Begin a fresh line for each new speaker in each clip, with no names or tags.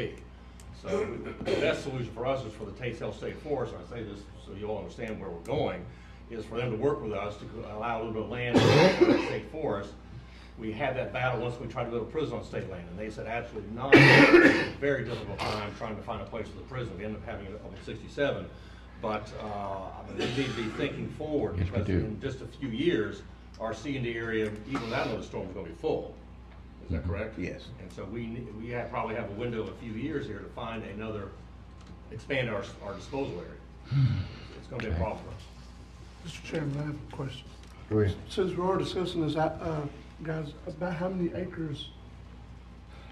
be. So the best solution for us is for the Tate Health State Forest, and I say this so you all understand where we're going, is for them to work with us to allow a little bit of land in the state forest. We had that battle once we tried to build a prison on state land, and they said absolutely not. Very difficult time trying to find a place for the prison. We ended up having it up in sixty-seven. But, uh, I mean, we need to be thinking forward.
Yes, we
because
do.
In just a few years, our C and D area, even without another storm, is gonna be full. Is that correct?
Yes.
And so we, ne- we have, probably have a window of a few years here to find another, expand our, our disposal area.
Hmm.
It's gonna be a problem for us.
Mr. Chairman, I have a question.
Go ahead.
Since we're all discussing this, I, uh, guys, about how many acres,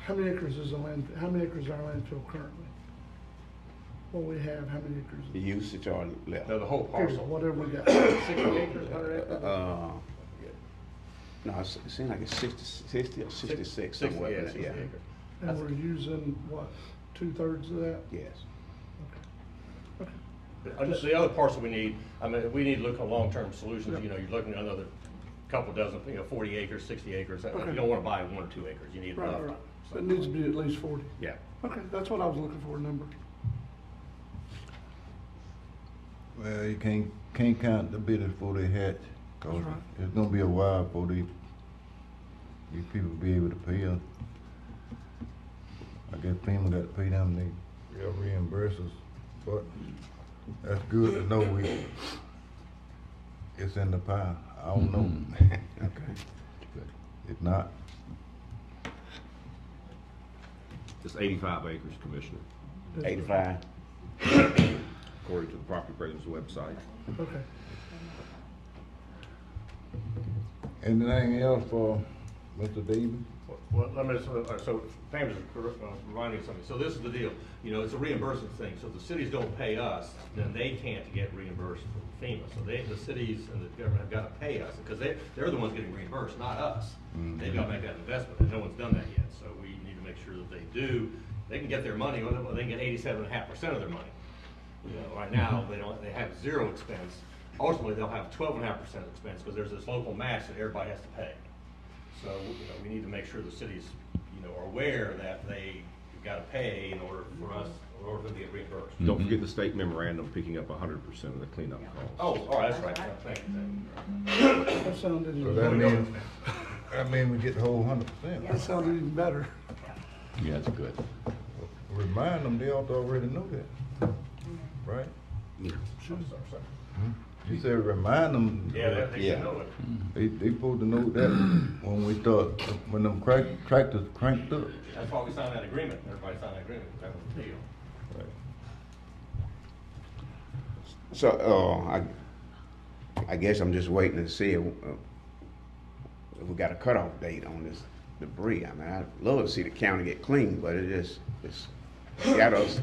how many acres is the land, how many acres is our landfill currently? What we have, how many
The
acres?
usage are left.
Now, the whole
Period,
parcel,
whatever we got.
sixty acres, hundred acres?
Uh, No, it's- it seems like it's 60 60 or sixty-six
Six-
somewhere.
yeah,
in
60
there, Yeah,
acres.
And we're using, what, two-thirds of that?
yes.
Uh, just The other parcel we need, I mean, we need to look at long-term solutions, you know, you're looking at another couple dozen, you know, forty acres, sixty acres, Uh, you
Okay.
don't wanna buy one or two acres, you need
Right,
enough.
right, right. So It needs to be at least forty.
Yeah.
Okay, that's what I was looking for, a number.
Well, you can't, can't count the bidders before they hatch, cause
That's right.
it's gonna be a while before they, these people be able to pay us. I guess FEMA got to pay them, they, they'll reimburse us, but that's good to know we, it's in the pile, I don't
Mm-hmm.
know.
Okay.
If not,
It's 85 acres, Commissioner,
Eighty-five.
according to the Property Appraiser's website.
Okay.
anything else for Mr. Davis?
Well, let me, just- uh, so Pam just cor- uh, reminded me of something. So this is the deal, you know, it's a reimbursement thing. So if the cities don't pay us, then they can't get reimbursed from FEMA. So they, the cities and the government have got to pay us because they, they're the ones getting reimbursed, not us. They've got to make that investment and no one's done that yet. So we need to make sure that they do. They can get their money, well, they can get eighty-seven and a half percent of their money. You know, right now, they don't, they have zero expense. Ultimately, they'll have twelve and a half percent expense because there's this local match that everybody has to pay. So, you know, we need to make sure the cities, you know, are aware that they gotta pay in order for us, in order for them to get reimbursed.
Don't forget the state memorandum picking up 100% of the cleanup costs.
Oh, all right, that's right, thank you.
That sounded,
So
even-
that means, that means we get the whole hundred percent.
that sounded even better.
Yeah, that's good.
Remind them, they ought to already know that, right?
I'm sorry, sorry.
You said remind them.
Yeah, that, they should
Yeah.
know it.
They, they supposed to know that when we start, when them crack, tractors cranked up.
That's why we signed that agreement, everybody signed that agreement, that was the deal.
So, uh, I, I guess I'm just waiting to see if, uh, if we got a cutoff date on this debris. I mean, I'd love to see the county get clean, but it just, it's got us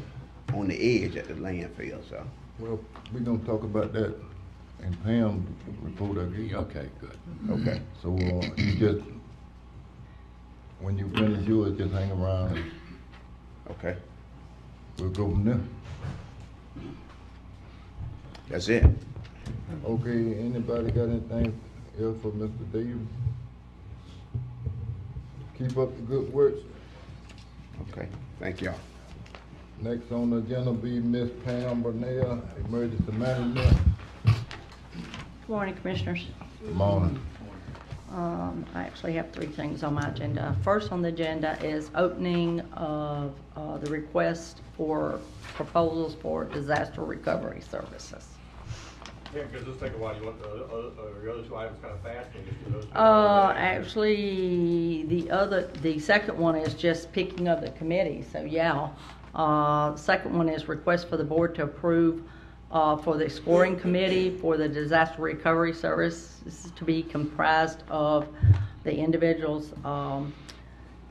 on the edge at the landfill, so.
Well, we gonna talk about that in Pam's report, I
Yeah,
guess.
Okay, good.
Okay.
So, uh, you just, when you finish yours, just hang around, and
Okay,
we'll go from there.
that's it.
Okay, anybody got anything else for Mr. Davis? Keep up the good work.
Okay, thank y'all.
Next on the agenda be Miss Pam Bernal, Emergency Management.
Good Morning, Commissioners.
Morning.
Um, I actually have three things on my agenda. First on the agenda is opening of uh, the request for proposals for disaster recovery services.
Yeah, because this take a while, you want the, other- uh, your other two items kind of fast, and just do those? two?
Uh, actually, the other, the second one is just picking up the committee, so yeah. Uh, second one is request for the board to approve, uh, for the scoring committee for the disaster recovery service. This is to be comprised of the individuals, um,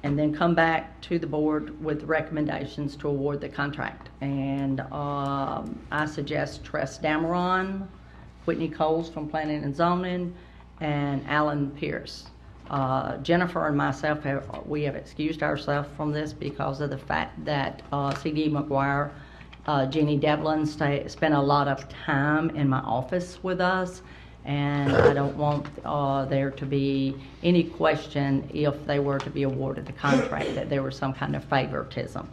and then come back to the board with recommendations to award the contract. And, um, I suggest Tress Dameron, Whitney Coles from Planning and Zoning, and Alan Pierce. Uh, Jennifer and myself have, we have excused ourselves from this because of the fact that uh, C.D. McGuire, uh, Jeannie Devlin stay, spent a lot of time in my office with us, and I don't want uh, there to be any question if they were to be awarded the contract that there was some kind of favoritism.